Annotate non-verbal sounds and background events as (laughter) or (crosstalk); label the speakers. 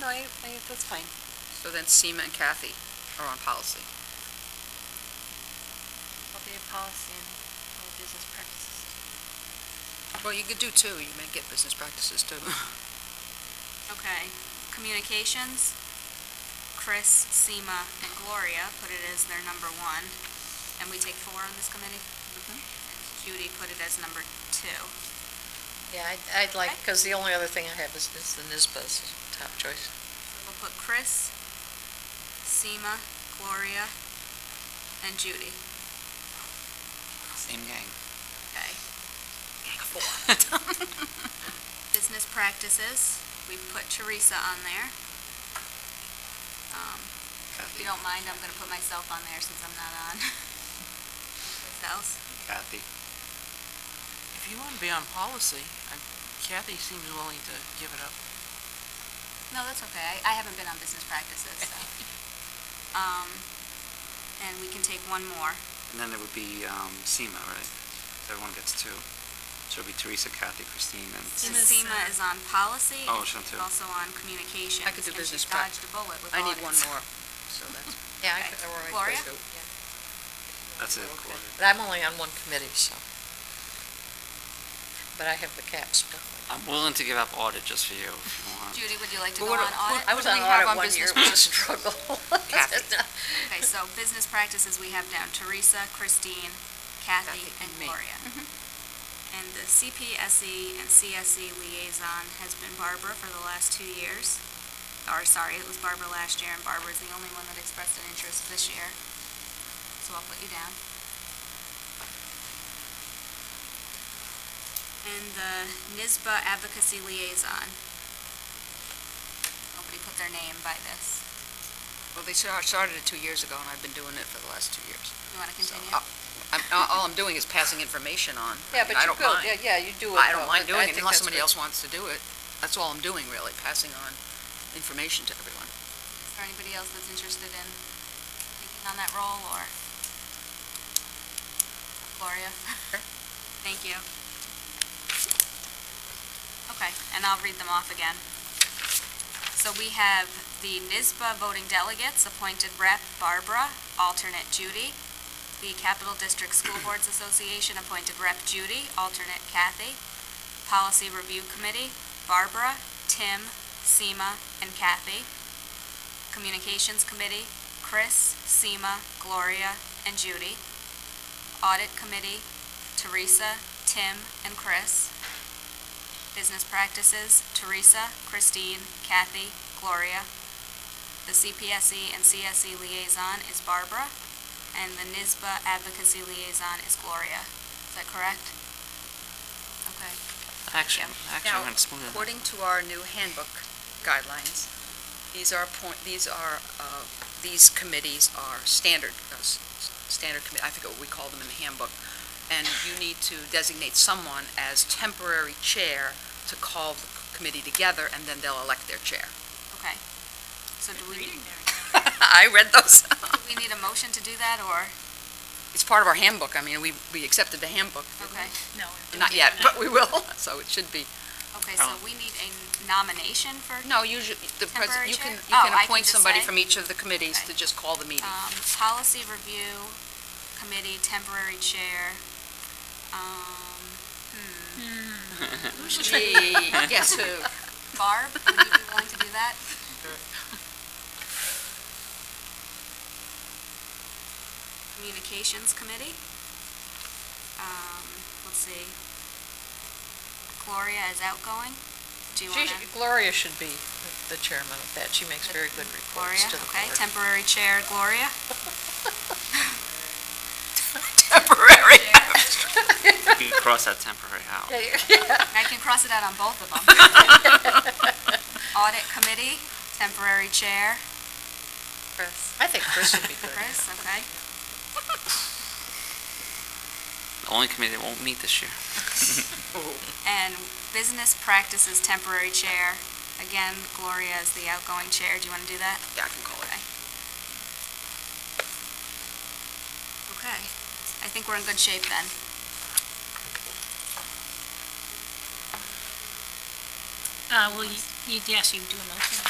Speaker 1: I, I, that's fine.
Speaker 2: So then Seema and Kathy are on policy.
Speaker 1: I'll be a policy and all business practices.
Speaker 2: Well, you could do two, you may get business practices too.
Speaker 3: Okay, communications, Chris, Seema, and Gloria put it as their number one, and we take four on this committee?
Speaker 1: Mm-hmm.
Speaker 3: And Judy put it as number two.
Speaker 4: (laughs) Yeah, I'd- I'd like, because the only other thing I have is, is the NISBA's top choice.
Speaker 3: We'll put Chris, Seema, Gloria, and Judy.
Speaker 2: Same gang.
Speaker 3: Okay.
Speaker 2: (laughs)
Speaker 3: Business practices, we put Teresa on there. Um, If you don't mind, I'm gonna put myself on there since I'm not on. (laughs) What else?
Speaker 2: Kathy.
Speaker 5: If you want to be on policy, I- Kathy seems willing to give it up.
Speaker 3: No, that's okay. I I haven't been on business practices,
Speaker 2: (laughs)
Speaker 3: so. Um, and we can take one more.
Speaker 6: And then there would be um, SEMA, right? Everyone gets two. So it'd be Teresa, Kathy, Christine, and
Speaker 3: And
Speaker 1: Seema's,
Speaker 3: Seema
Speaker 1: uh,
Speaker 3: is on policy. and
Speaker 6: Oh, she's on
Speaker 3: she's
Speaker 6: two.
Speaker 3: Also on communications.
Speaker 2: I could do
Speaker 3: and she
Speaker 2: business prac.
Speaker 3: dodged a bullet with
Speaker 2: I need one
Speaker 3: audits.
Speaker 2: more, so
Speaker 4: (laughs)
Speaker 2: that's,
Speaker 4: Yeah,
Speaker 3: Okay.
Speaker 4: I could, or I
Speaker 3: Gloria?
Speaker 4: could do-
Speaker 6: that's it. Gloria.
Speaker 4: But I'm only on one committee, so. But I have the cap split.
Speaker 6: I'm willing to give up audit just for you if you want.
Speaker 3: Judy, would you like to
Speaker 2: But
Speaker 3: go
Speaker 2: what-
Speaker 3: on audit?
Speaker 4: I was on
Speaker 2: we have
Speaker 4: audit
Speaker 2: on
Speaker 4: one year, it was a struggle. (laughs)
Speaker 2: Kathy.
Speaker 3: Okay, so business practices we have down Teresa, Christine, Kathy,
Speaker 2: Kathy,
Speaker 3: and
Speaker 2: me. Mm-hmm.
Speaker 3: Gloria. And the CPSE E and CSE liaison has been Barbara for the last two years. Or, sorry, it was Barbara last year, and Barbara's the only one that expressed an interest this year. So I'll put you down. And the NISBA Advocacy Liaison. Nobody put their name by this.
Speaker 2: well, they star- started it two years ago, and I've been doing it for the last two years.
Speaker 3: You want to
Speaker 2: So,
Speaker 3: continue?
Speaker 2: uh, I'm- uh, All I'm doing is passing information on. I
Speaker 4: Yeah,
Speaker 2: mean,
Speaker 4: but
Speaker 2: I
Speaker 4: you
Speaker 2: don't
Speaker 4: could,
Speaker 2: mind.
Speaker 4: yeah, yeah, you do it.
Speaker 2: I
Speaker 4: though,
Speaker 2: don't mind
Speaker 4: but
Speaker 2: doing it
Speaker 4: think
Speaker 2: unless
Speaker 4: that's
Speaker 2: somebody
Speaker 4: good.
Speaker 2: else wants to do it. That's all I'm doing, really, passing on information to everyone.
Speaker 3: Is there anybody else that's interested in taking on that role, or? Gloria? Thank you. Okay, and I'll read them off again. So we have the NISBA voting delegates, appointed rep Barbara, alternate Judy. The Capital District School Boards Association, appointed rep Judy, alternate Kathy. Policy Review Committee, Barbara, Tim, Seema, and Kathy. Communications Committee, Chris, Seema, Gloria, and Judy. Audit Committee, Teresa, Tim, and Chris. Business Practices, Teresa, Christine, Kathy, Gloria. The CPSE E and CSE Liaison is Barbara, and the NISBA Advocacy Liaison is Gloria. Is that correct? Okay.
Speaker 6: Actually, actually,
Speaker 2: Now,
Speaker 6: I'm going to smooth it.
Speaker 2: According to our new handbook guidelines, these are point, these are, uh, these committees are standard, uh, s- s- standard committee, I forget what we call them in the handbook. And you need to designate someone as temporary chair to call the committee together, and then they'll elect their chair. (laughs)
Speaker 3: Okay. So do we,
Speaker 2: I read those.
Speaker 3: do we need a motion to do that, or?
Speaker 2: It's part of our handbook. I mean, we, we accepted the handbook.
Speaker 3: Okay.
Speaker 1: No.
Speaker 2: Not yet, but we will, (laughs) so it should be.
Speaker 3: Okay,
Speaker 4: Oh.
Speaker 3: so we need a nomination for,
Speaker 2: No, usually, the, pres-
Speaker 3: Temporary
Speaker 2: you can,
Speaker 3: chair?
Speaker 2: you
Speaker 3: Oh, I
Speaker 2: can
Speaker 3: can
Speaker 2: appoint
Speaker 3: just
Speaker 2: somebody
Speaker 3: say?
Speaker 2: from each of the committees
Speaker 3: Okay.
Speaker 2: to just call the meeting.
Speaker 3: um, policy review committee temporary chair. Um, hmm, (laughs)
Speaker 2: Guess who?
Speaker 3: Barb, would you be willing to do that? Communications committee. Um, let's see. Gloria is outgoing. Do you want
Speaker 4: She should-
Speaker 3: to?
Speaker 4: Gloria should be the chairman of that. She makes very good reports
Speaker 3: Gloria,
Speaker 4: to the
Speaker 3: okay,
Speaker 4: board.
Speaker 3: temporary chair Gloria.
Speaker 2: Temporary. (laughs)
Speaker 6: You can cross that temporary out.
Speaker 4: (laughs)
Speaker 3: I can cross it out on both of them. Audit Committee, temporary chair,
Speaker 4: I think Chris would be good.
Speaker 3: Chris, okay.
Speaker 6: The only committee that won't meet this year.
Speaker 3: And Business Practices, temporary chair. Again, Gloria is the outgoing chair. Do you want to do that?
Speaker 2: Yeah, I can call it.
Speaker 3: Okay. I think we're in good shape then.
Speaker 7: Uh, well, you, you- yes, you do a motion.